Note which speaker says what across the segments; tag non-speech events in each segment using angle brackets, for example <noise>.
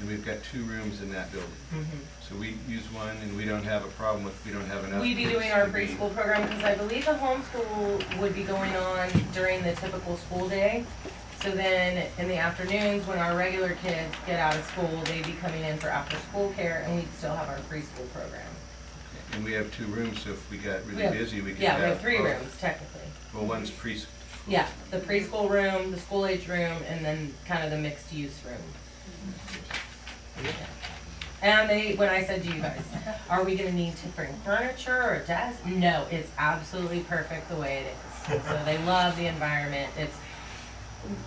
Speaker 1: and we've got two rooms in that building.
Speaker 2: Mhm.
Speaker 1: So we use one, and we don't have a problem with, we don't have enough.
Speaker 2: We'd be
Speaker 1: kids
Speaker 2: doing our
Speaker 1: to be-
Speaker 2: preschool program, because I believe the homeschool would be going on during the typical school day. So then, in the afternoons, when our regular kids get out of school, they'd be coming in for after-school care, and we'd still have our preschool program.
Speaker 1: And we have two rooms, so if we got
Speaker 2: We
Speaker 1: really
Speaker 2: have-
Speaker 1: busy, we could
Speaker 2: Yeah,
Speaker 1: have.
Speaker 2: we have three
Speaker 1: both.
Speaker 2: rooms technically.
Speaker 1: Well, one's preschool.
Speaker 2: Yeah, the preschool room, the school age room, and then kind of the mixed use room. And they, when I said to you guys, are we gonna need to bring furniture or a desk? No, it's absolutely perfect the way it is. So they love the environment. It's,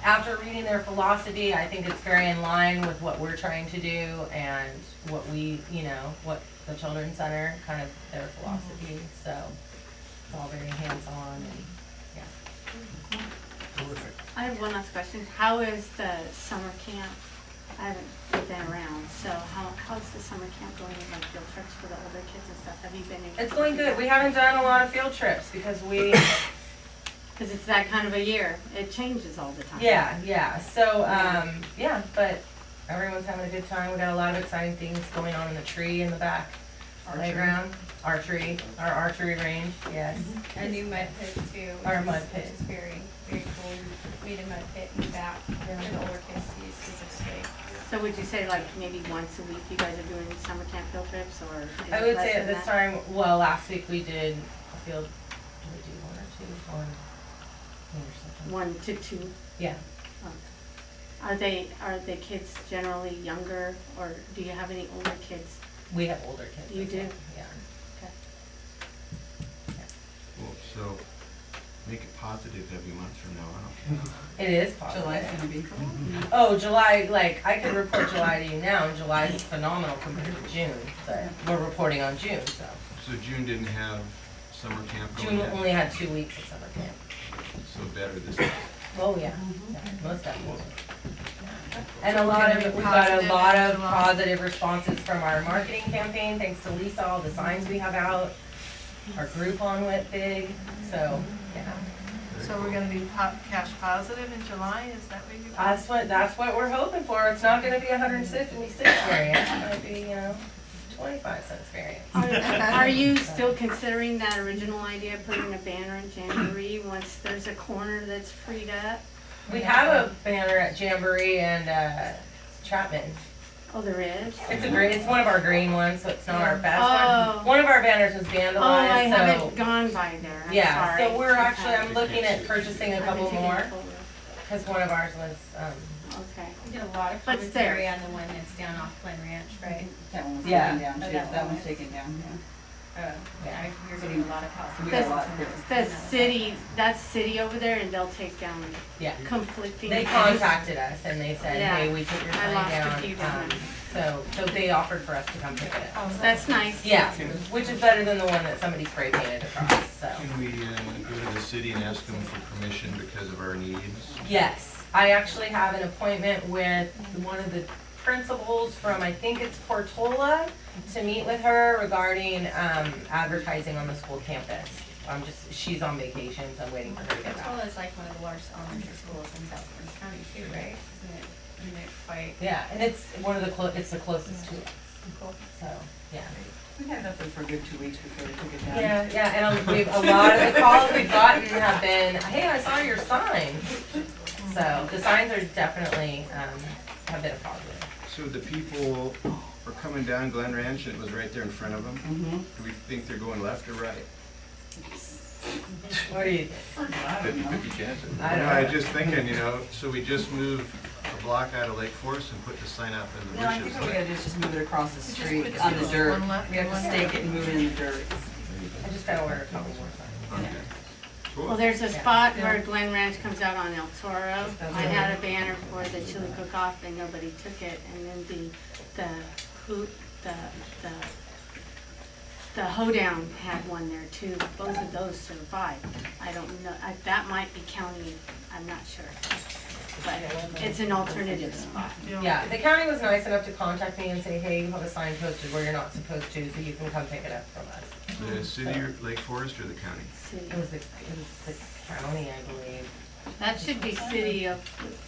Speaker 2: after reading their philosophy, I think it's very in line with what we're trying to do and what we, you know, what the children's center, kind of their philosophy. So it's all very hands-on and
Speaker 3: Terrific.
Speaker 4: I have one last question. How is the summer camp? I haven't been around, so how, how's the summer camp going, like field trips for the older kids and stuff? Have you been in?
Speaker 2: It's going good. We haven't done a lot of field trips because
Speaker 4: <coughs>
Speaker 2: we,
Speaker 4: Because it's that kind of a year. It changes all the time.
Speaker 2: yeah, yeah. So, um, yeah, but everyone's having a good time. We got a lot of exciting things going on in the tree in the back playground, archery, our archery range, yes.
Speaker 4: Mm-hmm.
Speaker 5: Our new mud pit too. which
Speaker 2: Our
Speaker 5: is-
Speaker 2: mud pit.
Speaker 5: Which is very, very cool. We made a mud pit in the back for the older kids to use specifically.
Speaker 4: So would you say like maybe once a week you guys are doing summer camp field trips or? is
Speaker 2: I
Speaker 4: it
Speaker 2: would
Speaker 4: less
Speaker 2: say at
Speaker 4: than
Speaker 2: this
Speaker 4: that?
Speaker 2: time, well, last week we did a field, did we do one or two? One. one or something.
Speaker 4: One to two?
Speaker 2: Yeah.
Speaker 4: Okay. Are they, are the kids generally younger or do you have any older kids?
Speaker 2: We have older kids.
Speaker 4: You
Speaker 2: as well,
Speaker 4: do?
Speaker 2: Yeah.
Speaker 1: Well, So make it positive every month from now on.
Speaker 2: It is possible. July's gonna be cool. Oh, July, like, I could report July to you now, and July's phenomenal compared to June, but we're reporting on June, so.
Speaker 1: So June didn't have summer camp going
Speaker 2: June
Speaker 1: yet?
Speaker 2: only had two weeks of summer camp.
Speaker 1: So better this time.
Speaker 2: Oh, yeah, yeah, most definitely. And a lot of, we got a lot of positive responses from our marketing campaign, thanks to Lisa, all the signs we have out. Our Groupon went big, so, yeah.
Speaker 1: Very
Speaker 6: So we're
Speaker 1: cool.
Speaker 6: gonna be po- cash positive in July, is that what you?
Speaker 2: That's what, that's what we're hoping for. It's not gonna be a hundred and fifty-six variance, it might be, you know, twenty-five cents variance.
Speaker 4: Are you still considering that original idea of putting a banner in Jamboree once there's a corner that's freed up?
Speaker 2: We have a banner at Jamboree and uh, Chapman.
Speaker 4: Oh, there is?
Speaker 2: It's a green. It's one of our green ones, so it's not our best
Speaker 4: Oh.
Speaker 2: one. One of our banners was vandalized,
Speaker 4: Oh, I
Speaker 2: so
Speaker 4: haven't gone by there, I'm sorry.
Speaker 2: yeah. So we're actually
Speaker 4: Okay.
Speaker 2: I'm looking at purchasing a
Speaker 4: I've been
Speaker 2: couple
Speaker 4: taking
Speaker 2: more
Speaker 4: a photo.
Speaker 2: because one of ours was. Um,
Speaker 4: Okay.
Speaker 5: We did a lot of
Speaker 4: But
Speaker 5: commentary
Speaker 4: there.
Speaker 5: on the one that's down off Glen Ranch, right?
Speaker 7: That one was
Speaker 2: Yeah.
Speaker 7: taken down,
Speaker 5: Oh,
Speaker 7: too.
Speaker 5: that
Speaker 7: That
Speaker 5: one.
Speaker 7: one's taken down, yeah.
Speaker 5: Oh, yeah, I- you're getting a lot of
Speaker 7: Mm-hmm.
Speaker 5: positive.
Speaker 7: We got
Speaker 4: The-
Speaker 7: a lot of
Speaker 4: The city, that's city over there and they'll take down
Speaker 2: yeah.
Speaker 4: conflicting.
Speaker 2: They
Speaker 4: things.
Speaker 2: contacted us and they said,
Speaker 4: Yeah.
Speaker 2: "Hey, we took your
Speaker 4: I
Speaker 2: sign
Speaker 4: lost
Speaker 2: down."
Speaker 4: a few down.
Speaker 2: Um, so, so they offered for us to come pick it up.
Speaker 4: That's nice.
Speaker 2: Yeah, which is better than the one that somebody spray painted across. So.
Speaker 1: Can we uh, go to the city and ask them for permission because of our needs?
Speaker 2: Yes, I actually have an appointment with one of the principals from, I think it's Portola, to meet with her regarding um, advertising on the school campus. I'm just, she's on vacation, so I'm waiting for her to get back.
Speaker 5: Pensacola is like one of the largest elementary schools in South Orange County too, right? Isn't it, isn't it quite
Speaker 2: Yeah, and it's one of the, clo- it's the closest to us,
Speaker 5: cool?
Speaker 2: so, yeah.
Speaker 7: We had it up there for a good two weeks before they took it down.
Speaker 2: Yeah, yeah, and a- we've, a lot of the calls we've gotten have been, hey, I saw your sign. So the signs are definitely, um, have been a positive.
Speaker 1: So the people are coming down Glen Ranch, and it was right there in front of them?
Speaker 7: Mhm.
Speaker 1: Do we think they're going left or right?
Speaker 2: What do you think?
Speaker 1: Fifty, fifty chance.
Speaker 2: I don't
Speaker 1: No, I
Speaker 2: know.
Speaker 1: was just thinking, you know, so we just moved a block out of Lake Forest and put the sign up in the
Speaker 7: No, I
Speaker 1: bushes.
Speaker 7: think what we gotta do is just move it across the
Speaker 6: just
Speaker 7: street
Speaker 6: put
Speaker 7: on
Speaker 6: two
Speaker 7: the
Speaker 6: on,
Speaker 7: dirt.
Speaker 6: one left
Speaker 7: We
Speaker 6: and
Speaker 7: have to
Speaker 6: one
Speaker 7: stake it and move it in the dirt.
Speaker 2: I just gotta order a couple more signs.
Speaker 1: Okay.
Speaker 4: Well,
Speaker 1: Cool.
Speaker 4: there's a spot where Glen Ranch comes out on El Toro. I had a banner for the chili cook-off and nobody took it. And then the, the, who, the, the, the hoedown had one there too. Both of those survived. I don't know, I- that might be county, I'm not sure. But it's an alternative spot.
Speaker 2: Yeah, the county was nice enough to contact me and say, hey, you have a sign posted where you're not supposed to, so you can come pick it up from us.
Speaker 1: The city, or Lake Forest or the county?
Speaker 4: City.
Speaker 2: It was the, it was the county, I believe.
Speaker 4: That should be city of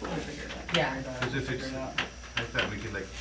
Speaker 7: We'll figure it out.
Speaker 2: Yeah.
Speaker 1: Because if it's-
Speaker 7: Figure it out.
Speaker 1: I thought we could like